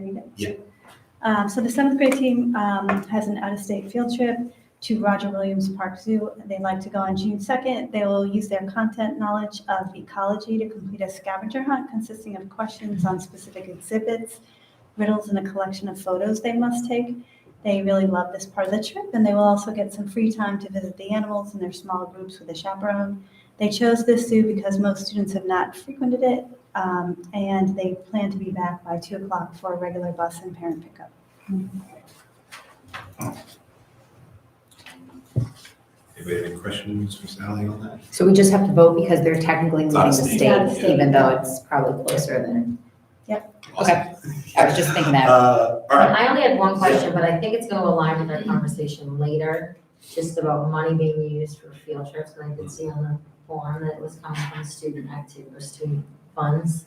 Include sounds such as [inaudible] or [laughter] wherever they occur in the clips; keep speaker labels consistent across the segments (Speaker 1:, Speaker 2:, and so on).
Speaker 1: students.
Speaker 2: Yeah.
Speaker 1: Um, so the seventh grade team um, has an out-of-state field trip to Roger Williams Park Zoo. They like to go on June second. They will use their content knowledge of ecology to complete a scavenger hunt consisting of questions on specific exhibits, riddles, and a collection of photos they must take. They really love this part of the trip, and they will also get some free time to visit the animals in their small groups with a chaperone. They chose this zoo because most students have not frequented it, um, and they plan to be back by two o'clock for a regular bus and parent pickup.
Speaker 2: Anybody have any questions for Sally on that?
Speaker 3: So we just have to vote because they're technically leaving
Speaker 2: Not a
Speaker 3: the
Speaker 2: state,
Speaker 3: state,
Speaker 1: yeah.
Speaker 3: even though it's probably closer than, Okay. I was just thinking that.
Speaker 2: Uh, all right,
Speaker 4: I only had one question, but I think it's gonna align with our conversation later, just about money being used for field trips, and I did see on the form that it was coming from student active or student funds.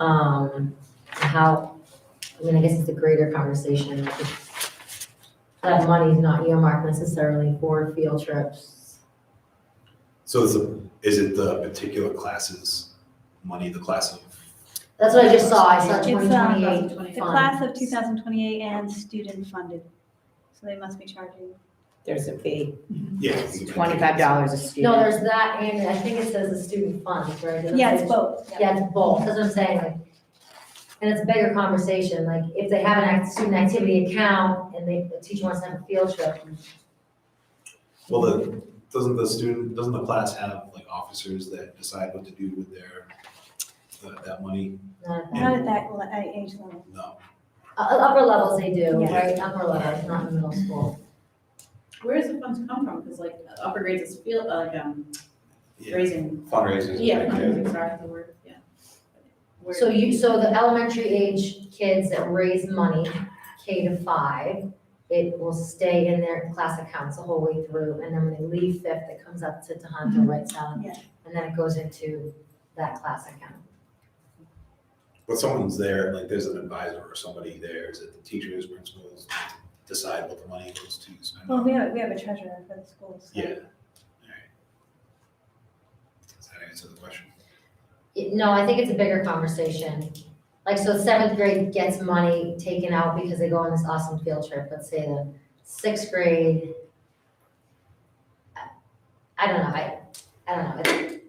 Speaker 4: Um, and how, I mean, I guess it's a greater conversation, like if that money is not earmarked necessarily for field trips.
Speaker 2: so is, the- is it the particular classes, money, the class of?
Speaker 4: That's what I just saw, I saw
Speaker 1: It's,
Speaker 4: twenty
Speaker 1: um,
Speaker 4: twenty-eight
Speaker 1: The class of 2028 and student funded, so they must be charging.
Speaker 3: there's a fee,
Speaker 2: Yeah.
Speaker 3: It's twenty-five dollars a student.
Speaker 4: No, there's that, and I think it says the student funds, right? Doesn't it
Speaker 1: Yeah,
Speaker 4: say
Speaker 1: it's both.
Speaker 4: Yeah, it's both, that's what I'm saying, like, and it's a bigger conversation, like, if they have an act, student activity account and they, the teacher wants to have a field trip.
Speaker 2: Well, the, doesn't the student, doesn't the class have like officers that decide what to do with their, that, that money?
Speaker 4: uh,
Speaker 1: Not at that le- at age level.
Speaker 2: No,
Speaker 4: uh, Upper levels they do,
Speaker 1: Yeah.
Speaker 4: right, upper levels, not in middle school.
Speaker 5: Where does the funds come from? Because like upper grades is field, uh, like um,
Speaker 2: Yeah.
Speaker 5: raising,
Speaker 2: fundraisers.
Speaker 5: yeah, fundraising, sorry, the word, yeah. Where-
Speaker 4: So you, so the elementary age kids that raise money, K to five, it will stay in their class accounts the whole way through, and then when they leave fifth, it comes up to Tohoto Right Sound.
Speaker 1: Yeah.
Speaker 4: And then it goes into that class account.
Speaker 2: But someone's there, like there's an advisor or somebody there, is it the teachers, principals, decide what the money goes to spend?
Speaker 1: Well, we have, we have a treasurer for the schools. so-
Speaker 2: Yeah, alright. Does that answer the question?
Speaker 4: It- No, I think it's a bigger conversation. Like, so seventh grade gets money taken out because they go on this awesome field trip, let's say the sixth grade. I- I don't know, I, I don't know. It-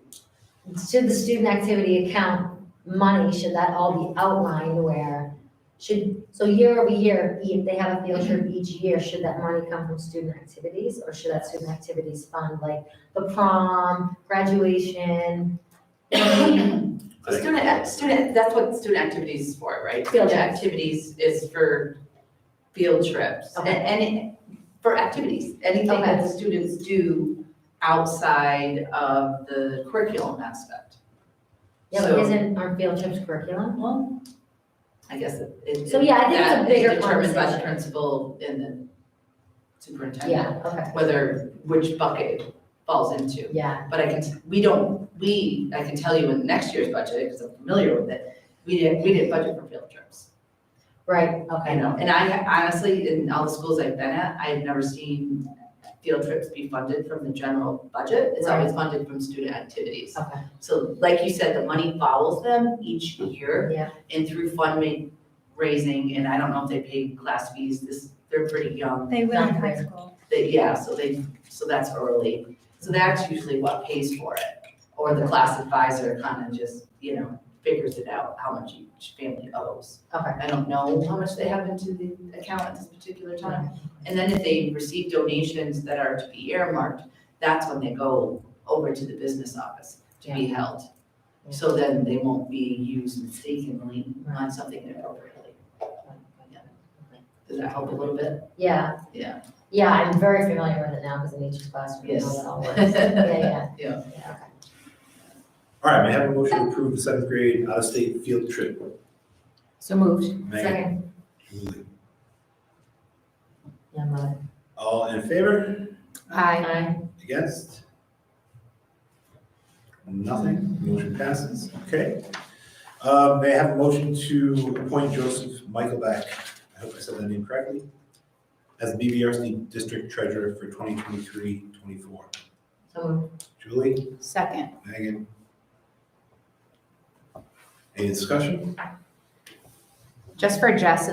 Speaker 4: Should the student activity account money, should that all be outlined where? Should, so year over year, e, if they have a field trip each year, should that money come from student activities? Or should that student activities fund like the prom, graduation? you know what I mean?
Speaker 2: I think-
Speaker 6: Student, act- student, that's what student activities is for, right?
Speaker 4: Field
Speaker 6: Student
Speaker 4: trips.
Speaker 6: Activities is for field trips and,
Speaker 4: Okay.
Speaker 6: and it- for activities, anything that the students do outside of the curriculum aspect.
Speaker 4: Yeah, but
Speaker 6: So-
Speaker 4: isn't our field trips curriculum?
Speaker 6: Well, I guess it. it-
Speaker 4: So, yeah, I think it's a
Speaker 6: that is
Speaker 4: bigger
Speaker 6: Determined by the
Speaker 4: conversation.
Speaker 6: principal and the superintendent,
Speaker 4: Yeah, okay,
Speaker 6: whether, which bucket falls into.
Speaker 4: yeah,
Speaker 6: But I can, t- we don't, we, I can tell you in next year's budget, because I'm familiar with it, we didn't, we didn't budget for field trips.
Speaker 4: right,
Speaker 6: I
Speaker 4: okay.
Speaker 6: know, and I ha- honestly, in all the schools I've been at, I've never seen field trips be funded from the general budget. It's always funded from student activities.
Speaker 4: Okay.
Speaker 6: So like you said, the money follows them each year.
Speaker 4: Yeah.
Speaker 6: And through fundraising, and I don't know if they pay class fees, this, they're pretty young,
Speaker 1: They will in high
Speaker 4: Not
Speaker 1: school.
Speaker 6: they, yeah, so they, so that's early. So that's usually what pays for it. Or the class advisor kind of just, you know, figures it out, how much each family owes.
Speaker 4: Okay.
Speaker 6: I don't know how much they have into the account at this particular time. And then if they receive donations that are to be earmarked, that's when they go over to the business office to be held. So then they won't be used mistakenly on something inappropriately. Does that help a little bit?
Speaker 4: Yeah.
Speaker 6: Yeah.
Speaker 4: Yeah, I'm very familiar with it now because in each classroom, you know
Speaker 6: Yes.
Speaker 4: that all works. Yeah, yeah.
Speaker 6: [laughs] Yeah.
Speaker 4: Yeah,
Speaker 2: All right, may I have a motion to approve the seventh grade out-of-state field trip?
Speaker 3: So moved.
Speaker 4: okay.
Speaker 2: Megan,
Speaker 4: Second,
Speaker 2: Julie,
Speaker 4: yeah, mother.
Speaker 2: All in favor?
Speaker 3: Aye.
Speaker 4: Aye.
Speaker 2: Against? Nothing, motion passes, okay. Uh, may I have a motion to appoint Joseph Michaelback, I hope I said that name correctly, as BVRC District Treasurer for 2023-24.
Speaker 4: So moved.
Speaker 2: Julie?
Speaker 5: Second.
Speaker 2: Megan? Any discussion?
Speaker 3: Just for Jess and